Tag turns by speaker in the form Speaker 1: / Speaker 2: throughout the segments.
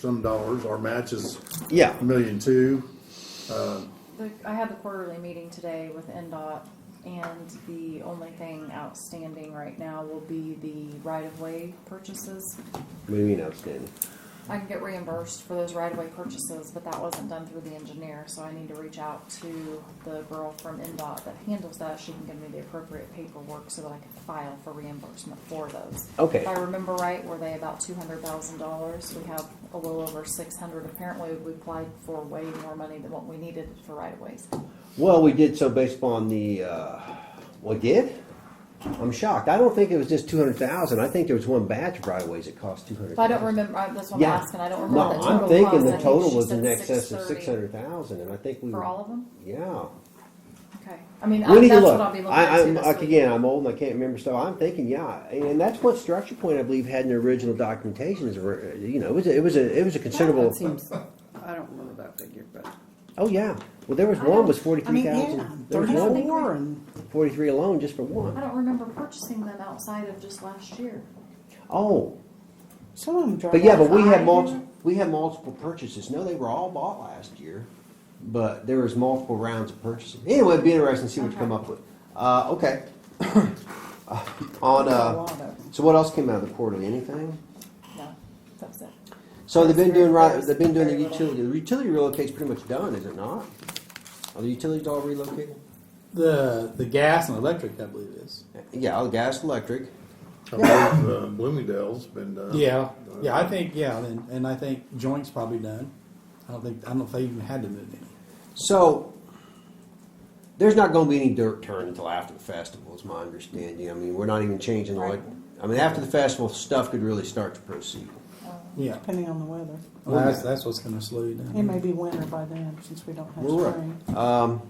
Speaker 1: some dollars, our match is
Speaker 2: Yeah,
Speaker 1: a million two.
Speaker 3: The, I had the quarterly meeting today with NDOT, and the only thing outstanding right now will be the right-of-way purchases.
Speaker 2: what do you mean outstanding?
Speaker 3: I can get reimbursed for those right-of-way purchases, but that wasn't done through the engineer, so I need to reach out to the girl from NDOT that handles that. She can give me the appropriate paperwork so that I can file for reimbursement for those.
Speaker 2: Okay.
Speaker 3: If I remember right, were they about two hundred thousand dollars? We have a little over six hundred. Apparently, we applied for way more money than what we needed for right-of-ways.
Speaker 2: Well, we did so based upon the, uh, we did? I'm shocked. I don't think it was just two hundred thousand. I think there was one batch of right ways that cost two hundred
Speaker 3: If I
Speaker 2: thousand.
Speaker 3: don't remember, uh, I- that's what I'm
Speaker 2: Yeah.
Speaker 3: asking, I don't remember
Speaker 2: No,
Speaker 3: what the total
Speaker 2: I'm
Speaker 3: was.
Speaker 2: thinking
Speaker 3: I
Speaker 2: the
Speaker 3: think
Speaker 2: total
Speaker 3: she
Speaker 2: was in
Speaker 3: said
Speaker 2: excess of
Speaker 3: 630
Speaker 2: six hundred thousand and I think we.
Speaker 3: For all of them?
Speaker 2: Yeah.
Speaker 3: Okay, I mean, I-
Speaker 2: We need to
Speaker 3: that's
Speaker 2: look.
Speaker 3: what I'll be looking
Speaker 2: I,
Speaker 3: into
Speaker 2: I'm,
Speaker 3: this
Speaker 2: like,
Speaker 3: week.
Speaker 2: again, I'm old and I can't remember stuff. I'm thinking, yeah, and that's what Structure Point, I believe, had in their original documentation is, where, you know, it was, a- it was a, it was a considerable.
Speaker 4: That seems, I don't remember that figure, but.
Speaker 2: Oh, yeah. Well, there was
Speaker 3: I
Speaker 2: one
Speaker 3: don't-
Speaker 2: was
Speaker 4: I
Speaker 2: forty-three
Speaker 4: mean, yeah,
Speaker 2: thousand. There was one,
Speaker 4: thirty-four and,
Speaker 2: forty-three alone just for
Speaker 3: I
Speaker 2: one.
Speaker 3: don't remember purchasing them outside of just last year.
Speaker 2: Oh,
Speaker 4: some of them drive.
Speaker 2: But yeah, but
Speaker 4: off.
Speaker 2: we had
Speaker 3: I
Speaker 2: multiple,
Speaker 3: remember-
Speaker 2: we had multiple purchases. No, they were all bought last year, but there was multiple rounds of purchasing. Anyway, it'd be interesting to see what you come
Speaker 3: Okay.
Speaker 2: up with. Uh, okay. Uh, On,
Speaker 4: A lot of
Speaker 2: uh,
Speaker 4: them.
Speaker 2: so what else came out of the quarterly? Anything?
Speaker 3: No, that was it.
Speaker 2: So they've been
Speaker 3: That's very-
Speaker 2: doing right,
Speaker 3: that's
Speaker 2: they've been doing the
Speaker 3: very little.
Speaker 2: utility. The utility relocate's pretty much done, is it not? Are the utilities all relocated?
Speaker 5: The the gas and electric, I believe, is.
Speaker 2: Yeah, all the gas, electric.
Speaker 1: I believe, uh, Bloomingdale's been uh, done.
Speaker 5: yeah, yeah. I think yeah, and, and I think joints probably done. I don't think I don't know if they even had to move any.
Speaker 2: So there's not going to be any dirt turned until after the festival, is my understanding. I mean, we're not even changing the.
Speaker 3: Right.
Speaker 2: I mean, after the festival, stuff could really start to proceed.
Speaker 5: Yeah,
Speaker 4: Depending on the weather.
Speaker 5: well, that's that's what's going to slow you down.
Speaker 4: It may be winter by then, since we don't have
Speaker 2: We're right.
Speaker 4: spring.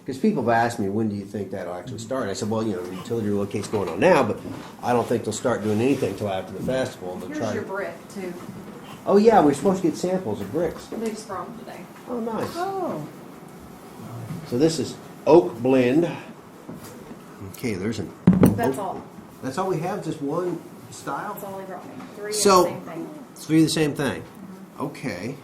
Speaker 2: Because people have asked me, when do you think that'll actually start? I said, well, you know, the utility relocate's going on now, but I don't think they'll start doing anything until after the festival. and They'll
Speaker 3: Here's
Speaker 2: try.
Speaker 3: your
Speaker 2: To,
Speaker 3: brick too,
Speaker 2: oh yeah, we're supposed to get samples of bricks.
Speaker 3: they just brought 'em today.
Speaker 2: Oh nice.
Speaker 4: Oh,
Speaker 2: So this is oak blend. Okay, there's an.
Speaker 3: That's all,
Speaker 2: That's all we have. Just one style.
Speaker 3: that's all they brought me, three of
Speaker 2: So-
Speaker 3: the same thing.
Speaker 2: Three the same thing.
Speaker 3: Mm-hmm.
Speaker 2: Okay.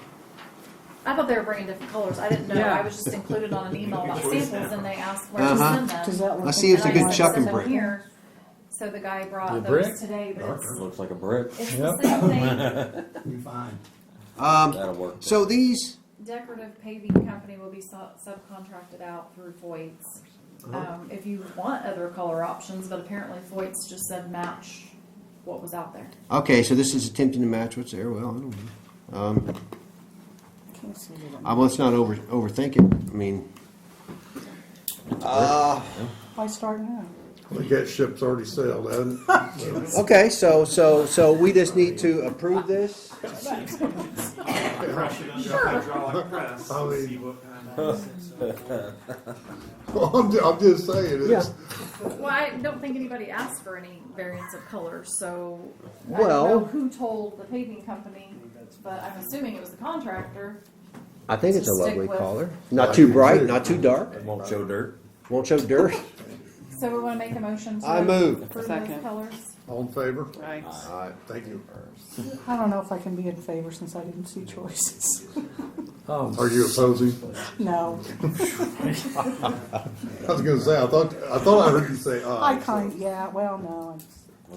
Speaker 3: I thought they were bringing different colors, I didn't know,
Speaker 4: Yeah.
Speaker 3: I was just included on an email about samples and they asked where to
Speaker 2: Uh-huh.
Speaker 3: send them.
Speaker 4: does that look?
Speaker 2: Let's see if
Speaker 3: And
Speaker 2: it's a
Speaker 3: I
Speaker 2: good
Speaker 3: said,
Speaker 2: chuck and
Speaker 3: "Send them
Speaker 2: brick."
Speaker 3: here." So the guy
Speaker 5: The
Speaker 3: brought
Speaker 5: brick?
Speaker 3: those today, but it's,
Speaker 6: Looks like a brick.
Speaker 3: it's the
Speaker 5: Yep.
Speaker 3: same thing.
Speaker 5: You're fine.
Speaker 2: Um,
Speaker 6: That'll work.
Speaker 2: so these,
Speaker 3: decorative paving company will be su- subcontracted out through Foyt's. Um, if you want other color options, but apparently Foyt's just said match what was out there.
Speaker 2: okay, so this is attempting to match what's there. Well, I don't know. Um,
Speaker 4: Can't see it.
Speaker 2: I, let's not over overthink it. I mean, uh,
Speaker 4: Why start now?
Speaker 1: The cat ship's already sailed, hasn't it?
Speaker 2: okay. So so so we just need to approve this.
Speaker 7: Press it under a hydraulic press
Speaker 1: I
Speaker 7: and
Speaker 1: mean-
Speaker 7: see what kind of.
Speaker 1: Well, I'm, ju- I'm just saying, it's,
Speaker 3: Well, I don't think anybody asked for any variants of colors, so I don't
Speaker 2: Well-
Speaker 3: know who told the paving company, but I'm assuming it was the contractor.
Speaker 2: I think it's a
Speaker 3: Stick
Speaker 2: lovely
Speaker 3: with-
Speaker 2: color. Not too bright, not too
Speaker 6: It
Speaker 2: dark.
Speaker 6: won't show dirt.
Speaker 2: Won't show dirt.
Speaker 3: So we wanna make a motion to.
Speaker 2: I move.
Speaker 3: approve those
Speaker 4: Second.
Speaker 3: colors.
Speaker 1: all in favor?
Speaker 4: Right.
Speaker 2: Uh,
Speaker 1: Thank you.
Speaker 4: I don't know if I can be in favor since I didn't see choices.
Speaker 1: Are you opposing?
Speaker 4: No,
Speaker 1: I was gonna say, I thought, I thought I heard you say
Speaker 4: I
Speaker 1: aye.
Speaker 4: kind, yeah, well, no,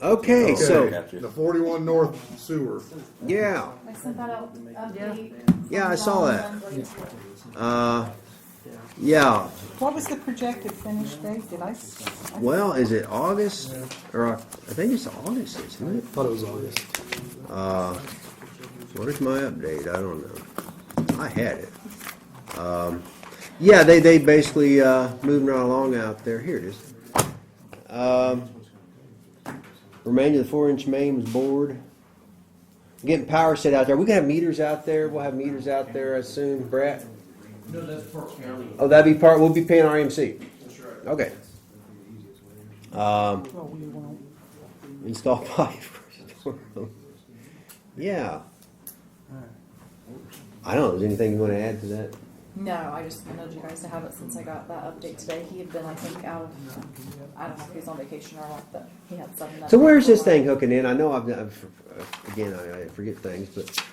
Speaker 4: I-
Speaker 2: okay, so
Speaker 1: Okay, The forty-one north sewer,
Speaker 2: yeah.
Speaker 3: I sent that out, uh, update.
Speaker 2: Yeah, I saw that.
Speaker 3: that.
Speaker 2: Uh, yeah.
Speaker 4: what was the projected finish date? Did I? s- I-
Speaker 2: Well, is it August or Oc- I think it's August, isn't it?
Speaker 5: Thought it was August.
Speaker 2: Uh, what is my update? I don't know. I had it. Um, yeah, they they basically uh, moving right along out there. Here it is. Um, remainder of the four inch main was bored. Getting power set out there. We can have meters out there. We'll have meters out there. I assume, Brett.
Speaker 8: No, that's Park County.
Speaker 2: Oh, that'd be part. We'll be paying RMC. Okay. Um,
Speaker 4: Well, oh, we won't.
Speaker 2: install pipe. for storm. yeah. I don't know. Is anything you want to add to that?
Speaker 3: No, I just wanted you guys to have it since I got that update today. He had been, I think, out of, I don't know if he was on vacation or not, but he had something. that-
Speaker 2: So where's this thing hooking in? I know I've, I've again I, I forget things, but